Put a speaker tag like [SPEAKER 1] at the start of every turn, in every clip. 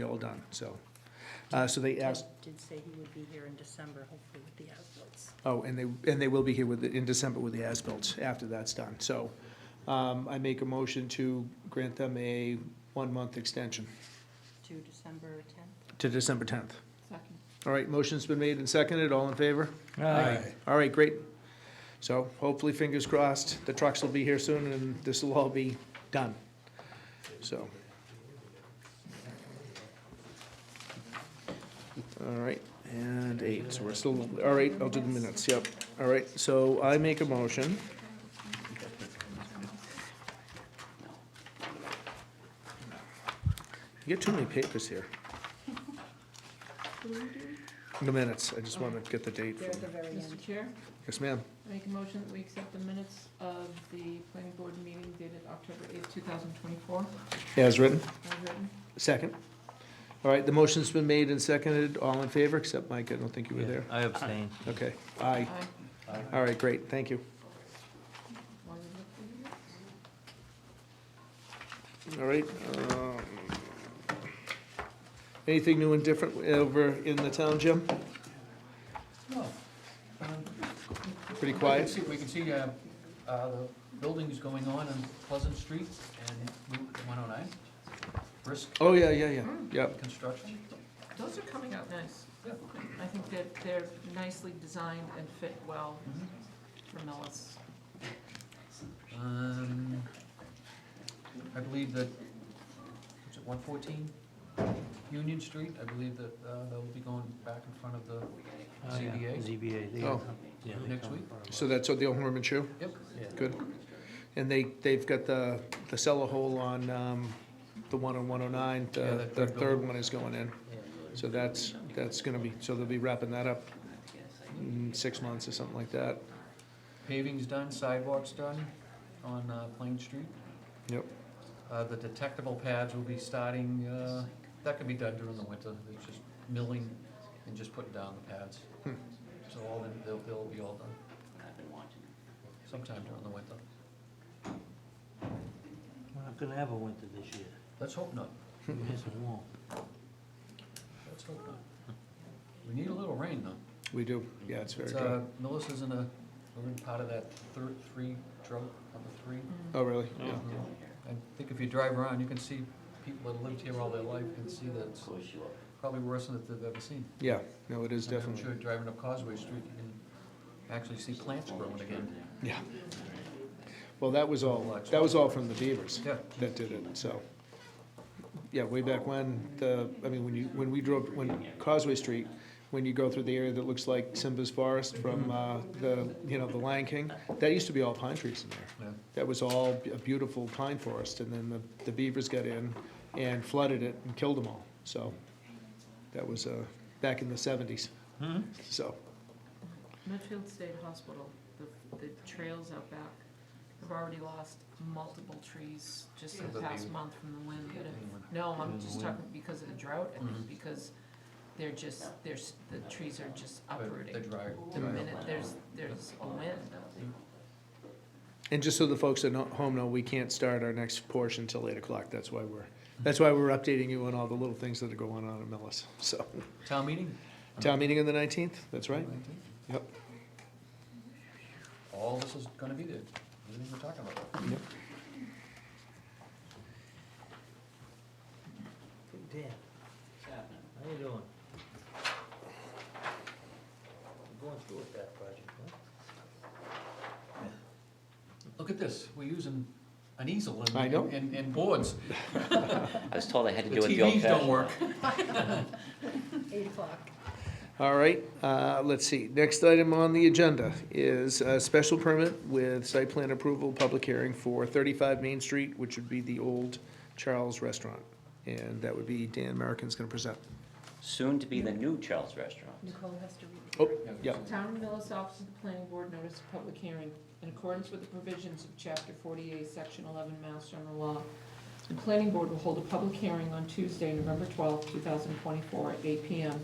[SPEAKER 1] be all done, so. Uh, so they asked,
[SPEAKER 2] Did say he would be here in December, hopefully with the outputs.
[SPEAKER 1] oh, and they, and they will be here with, the- in December with the as-built after that's done, so. Um, I make a motion to grant them a one-month extension
[SPEAKER 2] To December tenth?
[SPEAKER 1] to December tenth.
[SPEAKER 2] Second.
[SPEAKER 1] All right, motion's been made and seconded, all in favor?
[SPEAKER 3] Aye.
[SPEAKER 1] All right, great. So hopefully, fingers crossed, the trucks will be here soon and this will all be done. So. All right, and eight, so we're still, all right, I'll do the minutes, yep. All right, so I make a motion. You get too many papers here. The minutes, I just want to get the date.
[SPEAKER 2] They're at
[SPEAKER 1] from-
[SPEAKER 2] the very end.
[SPEAKER 4] Mr. Chair,
[SPEAKER 1] Yes, ma'am.
[SPEAKER 4] I make a motion that we accept the minutes of the planning board meeting dated October eighth, two thousand twenty-four,
[SPEAKER 1] As written.
[SPEAKER 4] as written.
[SPEAKER 1] Second. All right, the motion's been made and seconded. All in favor, except Mike, I don't think you were there.
[SPEAKER 3] I abstain.
[SPEAKER 1] Okay, aye.
[SPEAKER 4] Aye.
[SPEAKER 1] All right, great, thank you.
[SPEAKER 4] Want to look for the minutes?
[SPEAKER 1] All right. um, Anything new and different over in the town, Jim?
[SPEAKER 5] No. Um,
[SPEAKER 1] Pretty
[SPEAKER 5] we can
[SPEAKER 1] quiet?
[SPEAKER 5] see- We can see, uh, uh, the buildings going on on Pleasant Street and Route one oh nine, brisk
[SPEAKER 1] Oh, yeah, yeah, yeah, yep.
[SPEAKER 5] construction.
[SPEAKER 4] Those are coming out nice.
[SPEAKER 5] Yeah.
[SPEAKER 4] I think that they're nicely designed and fit well for Millis.
[SPEAKER 5] Um, I believe that, what's it, one fourteen Union Street, I believe that, uh, they'll be going back in front of the,
[SPEAKER 3] Uh, Oh,
[SPEAKER 5] ZBA?
[SPEAKER 3] ZBA. they-
[SPEAKER 1] Oh.
[SPEAKER 3] yeah, they
[SPEAKER 5] Next
[SPEAKER 3] come
[SPEAKER 5] week?
[SPEAKER 3] from-
[SPEAKER 1] So that's the old Horman shoe?
[SPEAKER 5] yep,
[SPEAKER 3] Yeah.
[SPEAKER 1] Good. And they, they've got the, the cellar hole on um, the one on 109.
[SPEAKER 5] Yeah,
[SPEAKER 1] The
[SPEAKER 5] that
[SPEAKER 1] the
[SPEAKER 5] third
[SPEAKER 1] third
[SPEAKER 5] building.
[SPEAKER 1] one is going in. So that's, that's going to be, so they'll be wrapping that up in six months or something like that.
[SPEAKER 5] paving's done, sidewalks done on, uh, Plain Street.
[SPEAKER 1] Yep.
[SPEAKER 5] Uh, the detectable pads will be starting, uh, that can be done during the winter, it's just milling and just putting down the pads.
[SPEAKER 1] Hmm.
[SPEAKER 5] So all, in- they'll, they'll be all done. Sometime during the winter.
[SPEAKER 3] We're not gonna have a winter this year.
[SPEAKER 5] Let's hope not,
[SPEAKER 3] Yes, it won't.
[SPEAKER 5] let's hope not. We need a little rain though.
[SPEAKER 1] We do, yeah, it's very
[SPEAKER 5] It's,
[SPEAKER 1] good.
[SPEAKER 5] uh, Melissa's in a, we're in part of that third, three drought, number three.
[SPEAKER 1] Oh, really? Yeah.
[SPEAKER 5] I think if you drive around, you can see people that lived here all their life can see that it's probably worse than they've ever seen.
[SPEAKER 1] Yeah, no, it is
[SPEAKER 5] And I'm
[SPEAKER 1] definitely,
[SPEAKER 5] sure driving up Causeway Street, you can actually see plants growing again.
[SPEAKER 1] yeah. Well, that was all, uh, that was all from the Beavers
[SPEAKER 5] Yeah.
[SPEAKER 1] that did it, so. Yeah, way back when, the, I mean, when you, when we drove, when Causeway Street, when you go through the area that looks like Simba's Forest
[SPEAKER 5] Mm-hmm.
[SPEAKER 1] from, uh, the, you know, the Lion King, that used to be all pine trees in there.
[SPEAKER 5] Yeah.
[SPEAKER 1] That was all a beautiful pine forest, and then the, the beavers got in and flooded it and killed them all, so. That was, uh, back in the seventies,
[SPEAKER 5] Mm-hmm.
[SPEAKER 3] Hmm?
[SPEAKER 1] so,
[SPEAKER 4] Medfield State Hospital, the, the trails out back, have already lost multiple trees just in the
[SPEAKER 5] Yeah.
[SPEAKER 4] past month from the wind. that have-
[SPEAKER 5] Anyone?
[SPEAKER 4] No, I'm
[SPEAKER 3] Because of
[SPEAKER 4] just
[SPEAKER 3] the wind.
[SPEAKER 4] talking because of the drought, I think
[SPEAKER 5] Mhm.
[SPEAKER 4] because they're just, there's, the trees are just
[SPEAKER 5] But
[SPEAKER 4] uprooting.
[SPEAKER 5] They dry.
[SPEAKER 4] The
[SPEAKER 5] dry up.
[SPEAKER 4] minute there's, there's a wind.
[SPEAKER 1] and just so the folks at no- home know, we can't start our next portion till eight o'clock, that's why we're, that's why we're updating you on all the little things that are going on at Millis, so.
[SPEAKER 5] Town meeting?
[SPEAKER 1] Town meeting on the nineteenth, that's right, yep,
[SPEAKER 5] All this is gonna be there, everything we're talking about.
[SPEAKER 3] Dan, how you doing? Going through with that project, huh?
[SPEAKER 5] Look at this, we're using an easel and.
[SPEAKER 1] I know.
[SPEAKER 5] And, and boards.
[SPEAKER 6] I was told I had to
[SPEAKER 5] The
[SPEAKER 6] do it the old
[SPEAKER 5] TVs don't
[SPEAKER 6] fashioned.
[SPEAKER 5] work.
[SPEAKER 2] Eight o'clock.
[SPEAKER 1] all right, uh, let's see, next item on the agenda is a special permit with site plan approval, public hearing for thirty-five Main Street, which would be the old Charles Restaurant, and that would be Dan American's gonna present.
[SPEAKER 6] Soon to be the new Charles Restaurant.
[SPEAKER 2] Nicole has to read.
[SPEAKER 1] Oh, yeah,
[SPEAKER 4] Town of Millis Office of the Planning Board notice of public hearing. In accordance with the provisions of Chapter 48, Section 11, Mass General Law, the Planning Board will hold a public hearing on Tuesday, November 12, 2024, at 8 p.m.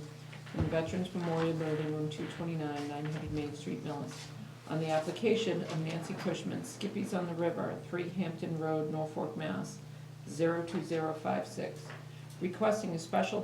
[SPEAKER 4] in the Veterans Memorial Building, Room 229, 900 Main Street, Millis, on the application of Nancy Cushman, Skippies on the River, 3 Hampton Road, Norfolk, Mass. 02056, requesting a special